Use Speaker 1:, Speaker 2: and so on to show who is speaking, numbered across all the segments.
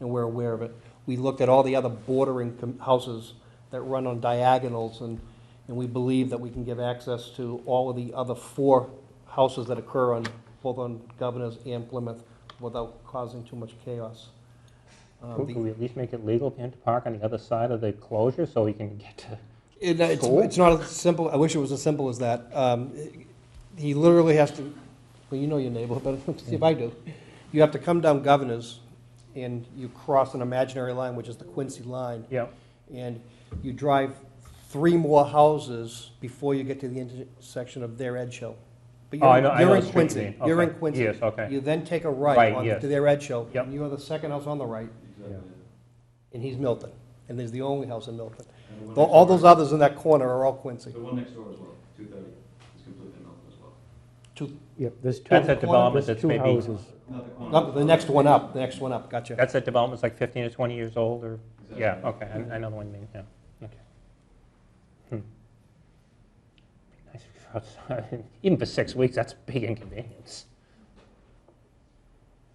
Speaker 1: and we're aware of it. We looked at all the other bordering com- houses that run on diagonals, and, and we believe that we can give access to all of the other four houses that occur on, both on Governor's and Plymouth, without causing too much chaos. Uh,
Speaker 2: Could
Speaker 1: the-
Speaker 2: could we at least make it legal for him to park on the other side of the closure so he can get to?
Speaker 1: It, it's,
Speaker 2: Cool.
Speaker 1: it's not as simple, I wish it was as simple as that. Um, He literally has to, well, you know your neighborhood, but see if I do. You have to come down Governors, and you cross an imaginary line, which is the Quincy line,
Speaker 2: Yeah.
Speaker 1: and you drive three more houses before you get to the intersection of their Edge Hill. But
Speaker 2: Oh, I
Speaker 1: you're-
Speaker 2: know, I know
Speaker 1: you're
Speaker 2: the
Speaker 1: in
Speaker 2: street you
Speaker 1: Quincy.
Speaker 2: mean.
Speaker 1: You're in
Speaker 2: Okay.
Speaker 1: Quincy.
Speaker 2: Yes, okay.
Speaker 1: You then take a
Speaker 2: Right,
Speaker 1: right on
Speaker 2: yes.
Speaker 1: to their Edge Hill.
Speaker 2: Yep.
Speaker 1: And you are the second house on the right, and he's Milton, and there's the only house in Milton.
Speaker 3: And the one
Speaker 1: Tho- All those
Speaker 3: next door-
Speaker 1: others in that corner are all Quincy.
Speaker 3: The one next door as well, two thirty, is completely melted as well.
Speaker 1: Two,
Speaker 4: Yep, there's two.
Speaker 2: That's
Speaker 1: corner,
Speaker 2: at developments
Speaker 4: There's
Speaker 2: that's
Speaker 4: two
Speaker 2: maybe,
Speaker 4: houses.
Speaker 3: Not the corner.
Speaker 1: no, the next one up, the next one up, gotcha.
Speaker 2: that's at developments like 15 to 20 years old or,
Speaker 3: Exactly.
Speaker 2: yeah, okay, I I know the one you mean, yeah, okay. Hmm. Be Nice if you're outside, even for six weeks, that's a big inconvenience.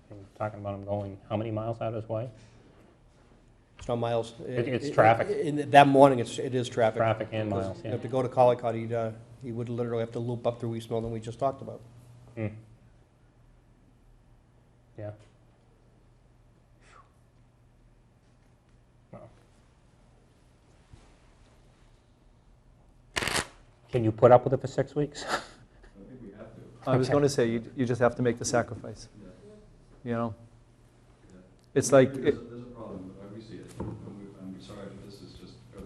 Speaker 2: And Talking about him going, how many miles out of his way?
Speaker 1: It's not miles.
Speaker 2: It- it's
Speaker 1: It- it-
Speaker 2: traffic.
Speaker 1: in- That morning, it's, it is traffic.
Speaker 2: Traffic and miles,
Speaker 1: Because
Speaker 2: yeah.
Speaker 1: If to go to Collycott, he'd, uh, he would literally have to loop up through East Milton, we just talked about.
Speaker 2: Hmm. Yeah. Wow. Can you put up with it for six weeks?
Speaker 3: I think we have to.
Speaker 5: I was going to say, you, you just have to make the sacrifice, you know? It's like,
Speaker 3: There's,
Speaker 5: it-
Speaker 3: a- there's a problem, but we see it, and we, I'm sorry, but this is just, uh,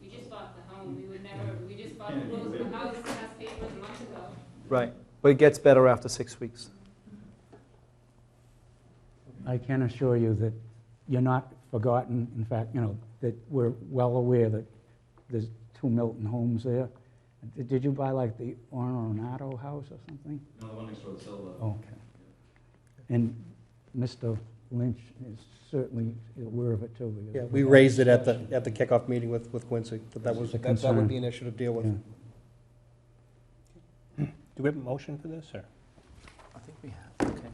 Speaker 6: We just bought the home, we would never, we just bought, closed the house last eight months ago.
Speaker 5: right, but it gets better after six weeks.
Speaker 4: I can assure you that you're not forgotten. In fact, you know, that we're well aware that there's two Milton homes there. Did- Did you buy like the Oronato house or something?
Speaker 3: no, the one next door, the Silva.
Speaker 4: Okay. And Mr. Lynch is certainly aware of it too. because-
Speaker 1: Yeah, we raised it at the, at the kickoff meeting with, with Quincy, that that was,
Speaker 4: It's a
Speaker 1: that that would
Speaker 4: concern.
Speaker 1: be an issue to deal
Speaker 4: Yeah.
Speaker 1: with.
Speaker 2: Do we have a motion for this, or?
Speaker 5: I think we have, okay.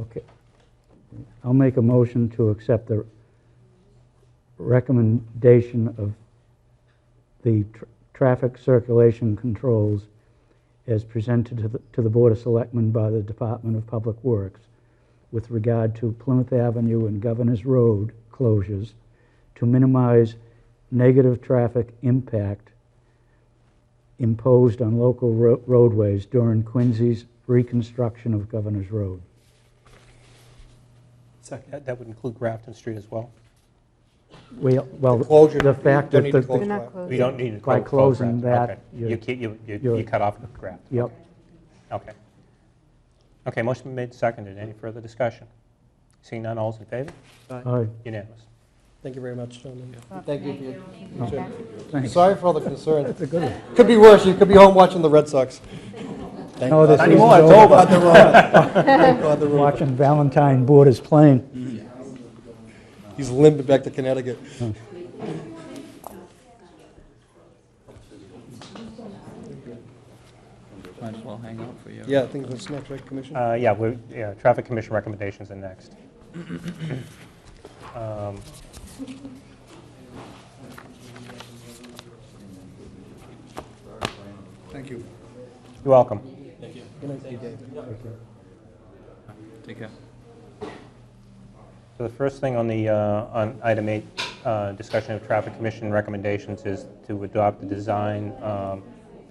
Speaker 4: Okay. I'll make a motion to accept the recommendation of the tr- traffic circulation controls as presented to the, to the Board of Selectmen by the Department of Public Works with regard to Plymouth Avenue and Governor's Road closures to minimize negative traffic impact imposed on local ro- roadways during Quincy's reconstruction of Governor's Road.
Speaker 5: Second.
Speaker 2: That that would include Grafton Street as well?
Speaker 4: We- Well,
Speaker 1: The closure,
Speaker 4: the
Speaker 1: you
Speaker 4: fact
Speaker 1: don't
Speaker 4: that
Speaker 1: need to
Speaker 4: the,
Speaker 1: close.
Speaker 7: They're not closed.
Speaker 2: We don't need to
Speaker 4: By
Speaker 2: close- close
Speaker 4: closing
Speaker 2: Grafton,
Speaker 4: that,
Speaker 2: okay.
Speaker 4: you're-
Speaker 2: You keep- You you
Speaker 4: you're-
Speaker 2: you cut off Grafton,
Speaker 4: yep,
Speaker 2: okay. Okay, motion been made, seconded, any further discussion? Seeing none, all's in favor?
Speaker 4: aye.
Speaker 2: Unanimous.
Speaker 1: Thank you very much, gentlemen.
Speaker 7: Well,
Speaker 1: Thank you for your
Speaker 7: Thank you.
Speaker 4: Oh, Thanks.
Speaker 1: Sorry for all the concern. Could be worse, you could be home watching the Red Sox. Thank
Speaker 4: No, this
Speaker 1: God.
Speaker 4: Not isn't anymore, it's over. over.
Speaker 1: God they're on. Thank God they're on.
Speaker 4: Watching Valentine Borders playing.
Speaker 1: He's limping back to Connecticut.
Speaker 5: Might as well hang out for you.
Speaker 1: Yeah, I think that's next, right, Commissioner?
Speaker 2: Uh, Yeah, we're, yeah, Traffic Commission recommendations are next. Um,
Speaker 1: Thank you.
Speaker 2: You're welcome.
Speaker 1: Good night, Dave.
Speaker 5: Take care.
Speaker 2: So the first thing on the, uh, on item eight, uh, discussion of Traffic Commission recommendations is to adopt the design um,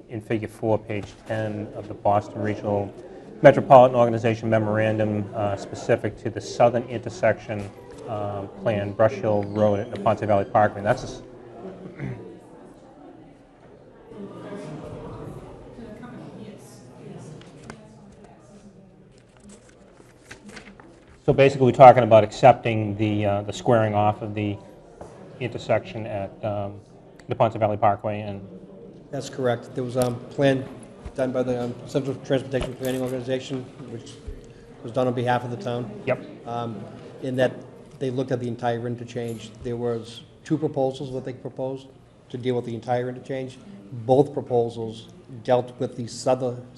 Speaker 2: in Figure 4, page 10 of the Boston Regional Metropolitan Organization Memorandum uh, specific to the southern intersection um, plan, Brush Hill Road and Ponce Valley Parkway. And That's, a s- so basically, we're talking about accepting the, uh, the squaring off of the intersection at um, the Ponce Valley Parkway and
Speaker 1: That's correct. There was a plan done by the um, Central Transportation Planning Organization, which was done on behalf of the town.
Speaker 2: Yep.
Speaker 1: Um, In that, they looked at the entire interchange. There was two proposals that they proposed to deal with the entire interchange. Both proposals dealt with the southern,